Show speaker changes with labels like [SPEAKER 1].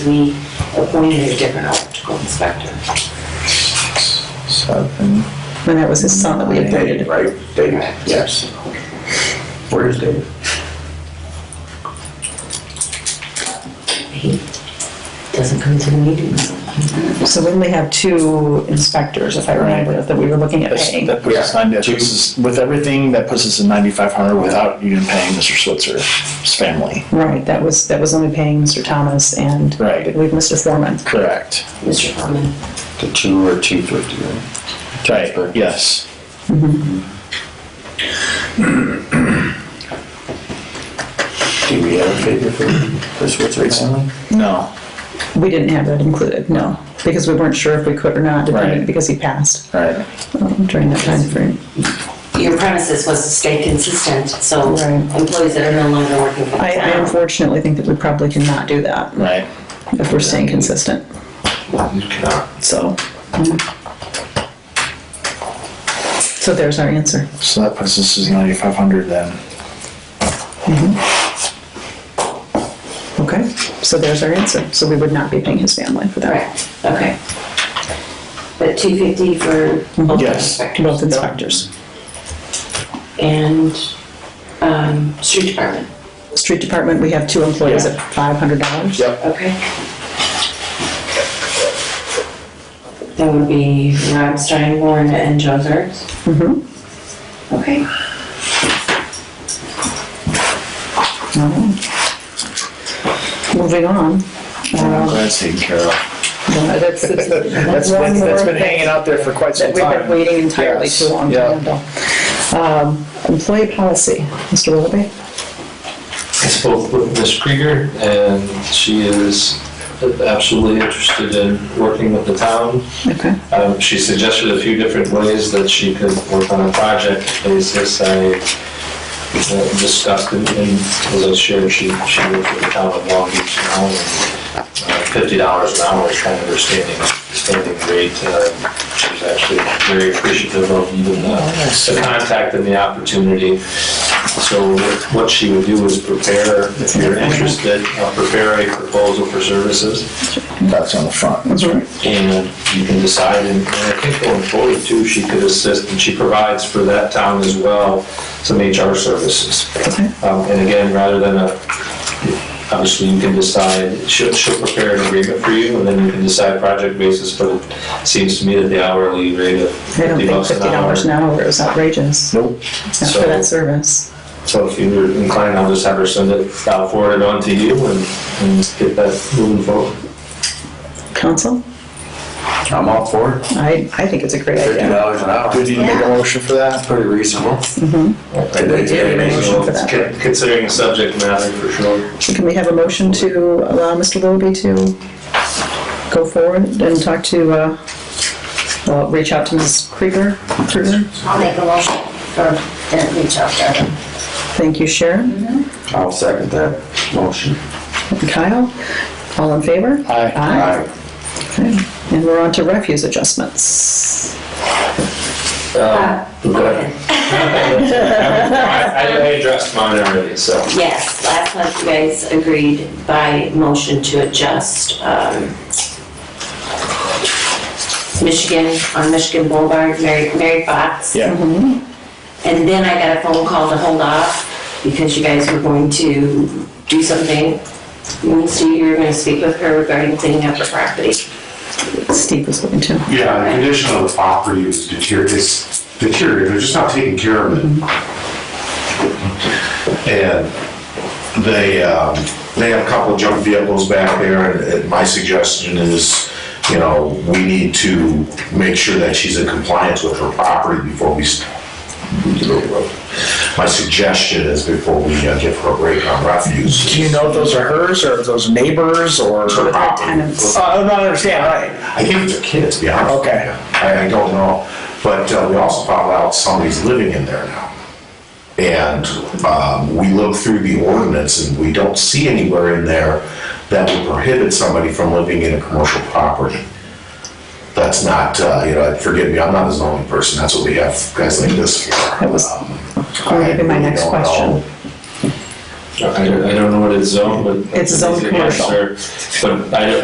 [SPEAKER 1] we appointed a different optical inspector.
[SPEAKER 2] Seven.
[SPEAKER 3] When that was his son that we
[SPEAKER 2] David,
[SPEAKER 3] appointed.
[SPEAKER 2] right? David, yes. Where is David?
[SPEAKER 1] He doesn't come to the meetings.
[SPEAKER 3] So we only have two inspectors, if I remember, that we were looking at
[SPEAKER 4] That's-
[SPEAKER 3] paying.
[SPEAKER 4] That puts us, nine- that
[SPEAKER 2] Yeah.
[SPEAKER 4] puts us- with everything, that puts us in ninety-five hundred without even paying Mr. Switzer's family.
[SPEAKER 3] Right, that was, that was only paying Mr. Thomas and
[SPEAKER 4] Right.
[SPEAKER 3] I believe Mr. Foreman.
[SPEAKER 4] Correct.
[SPEAKER 1] Mr. Foreman,
[SPEAKER 2] The two or two fifty, right?
[SPEAKER 4] Right, yes.
[SPEAKER 2] Do we have a figure for the Switzer family?
[SPEAKER 4] No,
[SPEAKER 3] We didn't have that included, no, because we weren't sure if we could or not, depending,
[SPEAKER 4] Right.
[SPEAKER 3] because he passed
[SPEAKER 4] right.
[SPEAKER 3] um, during that time frame.
[SPEAKER 1] your premises was to stay consistent, so
[SPEAKER 3] Right.
[SPEAKER 1] employees that are no longer working for the
[SPEAKER 3] I, I
[SPEAKER 1] town.
[SPEAKER 3] unfortunately think that we probably cannot do that
[SPEAKER 4] Right.
[SPEAKER 3] if we're staying consistent, so. So there's our answer.
[SPEAKER 4] So that puts us as ninety-five hundred then.
[SPEAKER 3] Okay, so there's our answer. So we would not be paying his family for that.
[SPEAKER 1] Correct, okay. But two fifty for both
[SPEAKER 4] Yes.
[SPEAKER 1] inspectors.
[SPEAKER 3] Mhm. Both inspectors.
[SPEAKER 1] And, um, street department,
[SPEAKER 3] Street department, we have two employees
[SPEAKER 4] Yeah.
[SPEAKER 3] at five hundred dollars.
[SPEAKER 4] Yep.
[SPEAKER 1] okay? That would be Rob Steinborn and Joe Zerts.
[SPEAKER 3] Mhm.
[SPEAKER 1] Okay.
[SPEAKER 3] All right. Moving on. Uh,
[SPEAKER 4] I'm glad it's taken care of.
[SPEAKER 3] That's,
[SPEAKER 4] Uh, That's been, that's been hanging out there for quite some
[SPEAKER 3] That we've been
[SPEAKER 4] time.
[SPEAKER 3] waiting entirely too
[SPEAKER 4] Yes,
[SPEAKER 3] long to
[SPEAKER 4] yeah.
[SPEAKER 3] handle. Um, Employee policy, Mr. Willoughby?
[SPEAKER 5] I spoke with Ms. Krieger, and she is absolutely interested in working with the town.
[SPEAKER 3] Okay.
[SPEAKER 5] Um, She suggested a few different ways that she could work on a project basis. I uh, discussed and, and as I shared, she, she worked with the town of Long Beach now. and, uh, Fifty dollars an hour is kind of her standing, standing rate. Uh, She's actually very appreciative of even the the contact and the opportunity. So what she would do is prepare, if you're interested, uh, prepare a proposal for services
[SPEAKER 4] That's on the front, that's right.
[SPEAKER 5] and you can decide, and and I think going forward too, she could assist, and she provides for that town as well, some HR services.
[SPEAKER 3] Okay.
[SPEAKER 5] Um, And again, rather than a, obviously you can decide, she'll, she'll prepare an agreement for you, and then you can decide project basis, but it seems to me that the hourly rate of
[SPEAKER 3] I don't
[SPEAKER 5] fifty
[SPEAKER 3] think
[SPEAKER 5] bucks an
[SPEAKER 3] fifty
[SPEAKER 5] hour.
[SPEAKER 3] dollars an hour is outrageous, not
[SPEAKER 4] Nope.
[SPEAKER 3] for that service.
[SPEAKER 5] So if you're inclined, I'll just have her send it, I'll forward it on to you and, and get that moving forward.
[SPEAKER 3] Council?
[SPEAKER 2] I'm all for it.
[SPEAKER 3] I, I think it's a great
[SPEAKER 2] Fifty
[SPEAKER 3] idea.
[SPEAKER 2] dollars an hour.
[SPEAKER 4] Do we need to make a motion for that?
[SPEAKER 2] That's pretty reasonable. They-
[SPEAKER 3] We
[SPEAKER 2] they-
[SPEAKER 3] do need a
[SPEAKER 2] they-
[SPEAKER 3] motion for that.
[SPEAKER 5] Con- Considering the subject matter, for sure.
[SPEAKER 3] Can we have a motion to allow Mr. Willoughby to go forward and talk to, uh, well, reach out to Ms. Krieger? Krieger?
[SPEAKER 6] I'll make a motion for, to reach out to them.
[SPEAKER 3] Thank you, Sharon.
[SPEAKER 2] I'll second that motion.
[SPEAKER 3] And Kyle? All in favor?
[SPEAKER 4] Aye.
[SPEAKER 3] Aye. Okay. And we're on to refuse adjustments.
[SPEAKER 5] Okay. I I addressed mine already, so.
[SPEAKER 1] Yes, last month you guys agreed by motion to adjust um, Michigan, on Michigan Boulevard, Mary Mary Fox.
[SPEAKER 3] Mm-hmm.
[SPEAKER 4] Yeah,
[SPEAKER 1] And then I got a phone call to hold off because you guys were going to do something. Wednesday, you were going to speak with her regarding cleaning up the property.
[SPEAKER 3] Steve was looking too.
[SPEAKER 7] Yeah, the condition of the property is deterior- it's deteriorating, they're just not taking care of it. And they, um, they have a couple of junk vehicles back there, and- and my suggestion is, you know, we need to make sure that she's in compliance with her property before we, s- my suggestion is before we uh, give her a break on refuse.
[SPEAKER 4] do you know if those are hers, or if those are neighbors, or?
[SPEAKER 7] Her
[SPEAKER 3] Our
[SPEAKER 7] property.
[SPEAKER 3] tenants.
[SPEAKER 4] Oh, I don't understand, right.
[SPEAKER 7] I think it's a kid, to be honest. with
[SPEAKER 4] Okay.
[SPEAKER 7] you. I, I don't know, but uh, we also found out somebody's living in there now. And, um, we looked through the ordinance and we don't see anywhere in there that would prohibit somebody from living in a commercial property. That's not, uh, you know, forgive me, I'm not a zoning person, that's what we have guys like this for.
[SPEAKER 3] That was
[SPEAKER 7] Um,
[SPEAKER 3] gonna be my
[SPEAKER 7] I
[SPEAKER 3] next
[SPEAKER 7] don't know.
[SPEAKER 3] question. I don't I don't know what it's zoned, but.
[SPEAKER 5] It's zoned commercial.
[SPEAKER 3] But I don't,